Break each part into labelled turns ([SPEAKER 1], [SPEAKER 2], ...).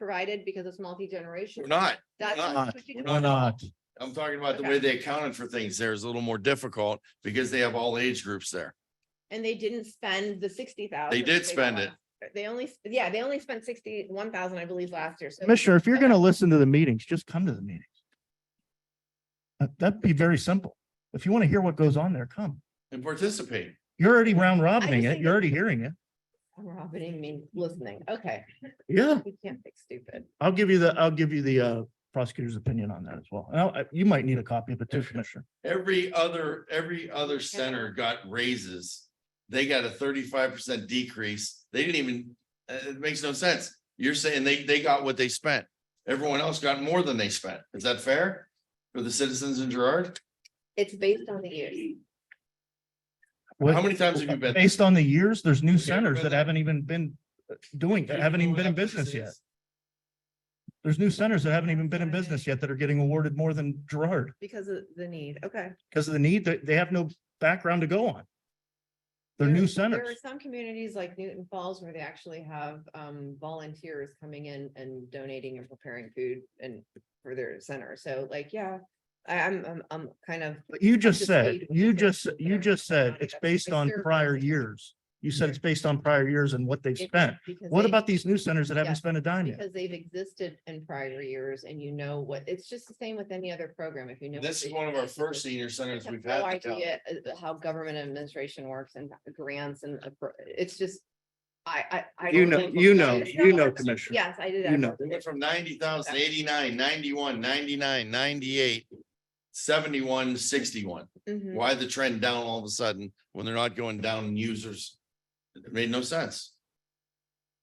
[SPEAKER 1] provided because it's multi-generational?
[SPEAKER 2] We're not.
[SPEAKER 1] That's
[SPEAKER 2] not.
[SPEAKER 1] what you
[SPEAKER 2] We're
[SPEAKER 1] do.
[SPEAKER 2] not.
[SPEAKER 3] Why not?
[SPEAKER 2] I'm talking about the way they accounted for things there is a little more difficult because they have all age groups there.
[SPEAKER 1] And they didn't spend the sixty thousand.
[SPEAKER 2] They did spend it.
[SPEAKER 1] They only, yeah, they only spent sixty-one thousand, I believe, last year. So
[SPEAKER 3] Commissioner, if you're gonna listen to the meetings, just come to the meetings. Uh, That'd be very simple. If you want to hear what goes on there, come.
[SPEAKER 2] And participate.
[SPEAKER 3] You're already round robbing
[SPEAKER 1] just
[SPEAKER 3] it.
[SPEAKER 1] think-
[SPEAKER 3] You're already hearing it.
[SPEAKER 1] I'm Robin, I mean, listening. Okay,
[SPEAKER 3] Yeah.
[SPEAKER 1] we can't think stupid.
[SPEAKER 3] I'll give you the, I'll give you the uh, prosecutor's opinion on that as well. And I'll- you might need a copy of it too, Commissioner.
[SPEAKER 2] Every other, every other center got raises. They got a thirty-five percent decrease. They didn't even, uh, it makes no sense. You're saying they, they got what they spent. Everyone else got more than they spent. Is that fair? For the citizens in Gerard?
[SPEAKER 1] It's based on the years.
[SPEAKER 2] How many times have you been?
[SPEAKER 3] Based on the years, there's new
[SPEAKER 2] Okay,
[SPEAKER 3] centers
[SPEAKER 2] but-
[SPEAKER 3] that haven't even been uh, doing, that haven't even been in business yet. There's new centers that haven't even been in business yet that are getting awarded more than Gerard
[SPEAKER 1] Because of the need, okay.
[SPEAKER 3] because of the need that they have no background to go on.
[SPEAKER 1] There-
[SPEAKER 3] They're new
[SPEAKER 1] There are
[SPEAKER 3] centers.
[SPEAKER 1] some communities like Newton Falls where they actually have um volunteers coming in and donating and preparing food and for their center. So like, yeah, I I'm I'm I'm kind of.
[SPEAKER 3] But you just
[SPEAKER 1] just
[SPEAKER 3] said,
[SPEAKER 1] need-
[SPEAKER 3] you just, you
[SPEAKER 1] Yeah.
[SPEAKER 3] just said it's based on
[SPEAKER 1] Experience.
[SPEAKER 3] prior years. You said it's based on prior years and what they've spent.
[SPEAKER 1] because
[SPEAKER 3] What
[SPEAKER 1] they-
[SPEAKER 3] about these new centers that
[SPEAKER 1] Yeah,
[SPEAKER 3] haven't spent a dime yet?
[SPEAKER 1] Because they've existed in prior years and you know what, it's just the same with any other program, if you know. what
[SPEAKER 2] This
[SPEAKER 1] the
[SPEAKER 2] is one of our first
[SPEAKER 1] existing-
[SPEAKER 2] senior
[SPEAKER 1] I
[SPEAKER 2] centers
[SPEAKER 1] have
[SPEAKER 2] we've
[SPEAKER 1] No
[SPEAKER 2] had. in town.
[SPEAKER 1] idea uh, how government administration works and grants and appro- it's just, I I. I
[SPEAKER 3] You
[SPEAKER 1] don't
[SPEAKER 3] know-
[SPEAKER 1] really look
[SPEAKER 3] you
[SPEAKER 1] at
[SPEAKER 3] know-
[SPEAKER 1] it.
[SPEAKER 3] you know,
[SPEAKER 1] No,
[SPEAKER 3] Commissioner.
[SPEAKER 1] Yes, I did.
[SPEAKER 3] You know.
[SPEAKER 2] They went from ninety thousand, eighty-nine, ninety-one, ninety-nine, ninety-eight, seventy-one, sixty-one.
[SPEAKER 1] Mhm.
[SPEAKER 2] Why the trend down all of a sudden when they're not going down in users? It made no sense.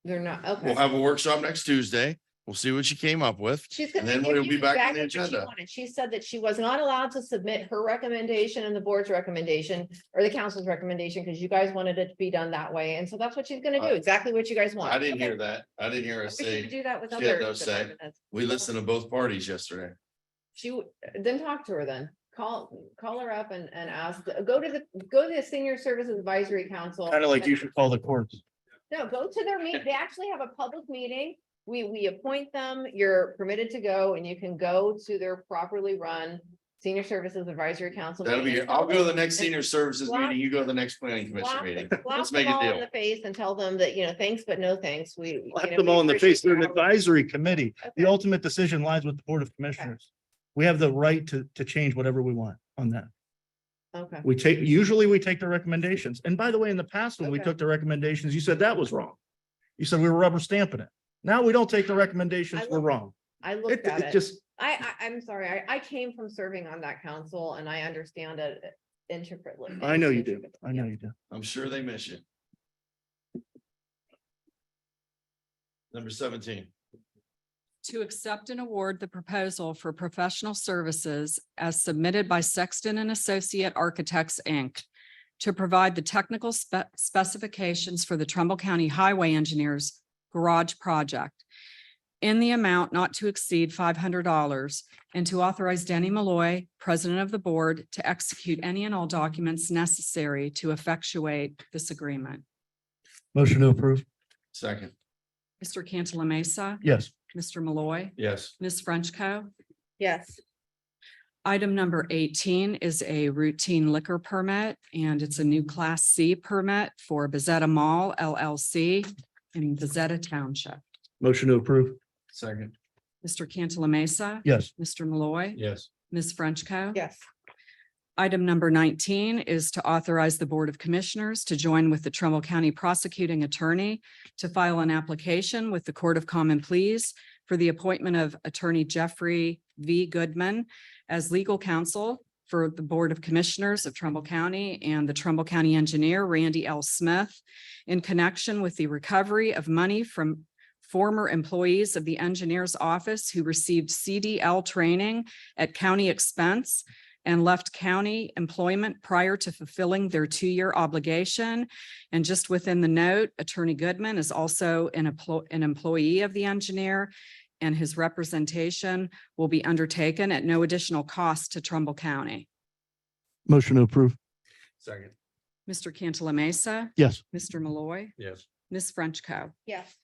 [SPEAKER 1] They're not,
[SPEAKER 2] We'll
[SPEAKER 1] okay.
[SPEAKER 2] have a workshop next Tuesday. We'll see what you came up with.
[SPEAKER 1] She's
[SPEAKER 2] And
[SPEAKER 1] gonna
[SPEAKER 2] then
[SPEAKER 1] give
[SPEAKER 2] we'll
[SPEAKER 1] you
[SPEAKER 2] be back
[SPEAKER 1] exactly
[SPEAKER 2] on the
[SPEAKER 1] what she
[SPEAKER 2] agenda.
[SPEAKER 1] wanted. She said that she was not allowed to submit her recommendation and the board's recommendation or the council's recommendation because you guys wanted it to be done that way. And so that's what she's gonna
[SPEAKER 2] I-
[SPEAKER 1] do, exactly what you guys want.
[SPEAKER 2] I didn't
[SPEAKER 1] Okay.
[SPEAKER 2] hear that. I didn't hear her
[SPEAKER 1] We should
[SPEAKER 2] say,
[SPEAKER 1] do that with
[SPEAKER 2] she had
[SPEAKER 1] other.
[SPEAKER 2] no say.
[SPEAKER 1] department heads.
[SPEAKER 2] we listened to both parties yesterday.
[SPEAKER 1] She, w- then talk to her then. Call, call her up and, and ask, go to the, go to the Senior Services Advisory Council.
[SPEAKER 3] Kind of like you
[SPEAKER 1] and-
[SPEAKER 3] should call the courts.
[SPEAKER 1] No, go to their meet. They actually have a public meeting. We, we appoint them. You're permitted to go and you can go to their properly run Senior Services Advisory Council.
[SPEAKER 2] That'll be,
[SPEAKER 1] meeting.
[SPEAKER 2] I'll go to the next senior services
[SPEAKER 1] Block-
[SPEAKER 2] meeting. You go to the next planning commission
[SPEAKER 1] Slap-
[SPEAKER 2] meeting.
[SPEAKER 1] slap
[SPEAKER 2] Let's make
[SPEAKER 1] them
[SPEAKER 2] a
[SPEAKER 1] all in
[SPEAKER 2] deal.
[SPEAKER 1] The face and tell them that, you know, thanks, but no thanks. We. you know,
[SPEAKER 3] Slap them
[SPEAKER 1] we
[SPEAKER 3] all in the face.
[SPEAKER 1] appreciate
[SPEAKER 3] They're an
[SPEAKER 1] your help.
[SPEAKER 3] advisory committee. The
[SPEAKER 1] Okay.
[SPEAKER 3] ultimate decision lies with the Board of Commissioners. We have the right to, to change whatever we want on that.
[SPEAKER 1] Okay.
[SPEAKER 3] We take, usually we take the recommendations. And by the way, in the past, when we
[SPEAKER 1] Okay.
[SPEAKER 3] took the recommendations, you said that was wrong. You said we were rubber stamping it. Now we don't take the recommendations,
[SPEAKER 1] I
[SPEAKER 3] we're
[SPEAKER 1] look-
[SPEAKER 3] wrong.
[SPEAKER 1] I
[SPEAKER 3] It,
[SPEAKER 1] looked at
[SPEAKER 3] it
[SPEAKER 1] it.
[SPEAKER 3] just,
[SPEAKER 1] I, I, I'm sorry, I, I came from serving on that council and I understand it intricately.
[SPEAKER 3] I know you do. I know
[SPEAKER 1] Yeah.
[SPEAKER 3] you do.
[SPEAKER 2] I'm sure they miss you. Number seventeen.
[SPEAKER 4] To accept and award the proposal for professional services as submitted by Sexton and Associate Architects, Inc. To provide the technical spe- specifications for the Trumbull County Highway Engineers Garage Project in the amount not to exceed five hundred dollars and to authorize Danny Malloy, President of the Board, to execute any and all documents necessary to effectuate this agreement.
[SPEAKER 3] Motion to approve.
[SPEAKER 2] Second.
[SPEAKER 4] Mr. Cantala Mesa,
[SPEAKER 3] Yes.
[SPEAKER 4] Mr. Malloy,
[SPEAKER 2] Yes.
[SPEAKER 4] Ms. Frenchco.
[SPEAKER 1] Yes,
[SPEAKER 4] Item number eighteen is a routine liquor permit, and it's a new Class C permit for Bezetta Mall LLC in Bezetta Township.
[SPEAKER 3] Motion to approve.
[SPEAKER 2] Second.
[SPEAKER 4] Mr. Cantala Mesa.
[SPEAKER 3] Yes.
[SPEAKER 4] Mr. Malloy.
[SPEAKER 2] Yes.
[SPEAKER 4] Ms. Frenchco.
[SPEAKER 1] yes,
[SPEAKER 4] Item number nineteen is to authorize the Board of Commissioners to join with the Trumbull County Prosecuting Attorney to file an application with the Court of Common Pleas for the appointment of Attorney Jeffrey V. Goodman as legal counsel for the Board of Commissioners of Trumbull County and the Trumbull County Engineer Randy L. Smith in connection with the recovery of money from former employees of the Engineers Office who received CDL training at county expense and left county employment prior to fulfilling their two-year obligation. And just within the note, Attorney Goodman is also an employee, an employee of the engineer, and his representation will be undertaken at no additional cost to Trumbull County.
[SPEAKER 3] Motion to approve.
[SPEAKER 2] Second.
[SPEAKER 4] Mr. Cantala Mesa,
[SPEAKER 3] Yes.
[SPEAKER 4] Mr. Malloy,
[SPEAKER 2] Yes.
[SPEAKER 4] Ms. Frenchco.
[SPEAKER 1] yes,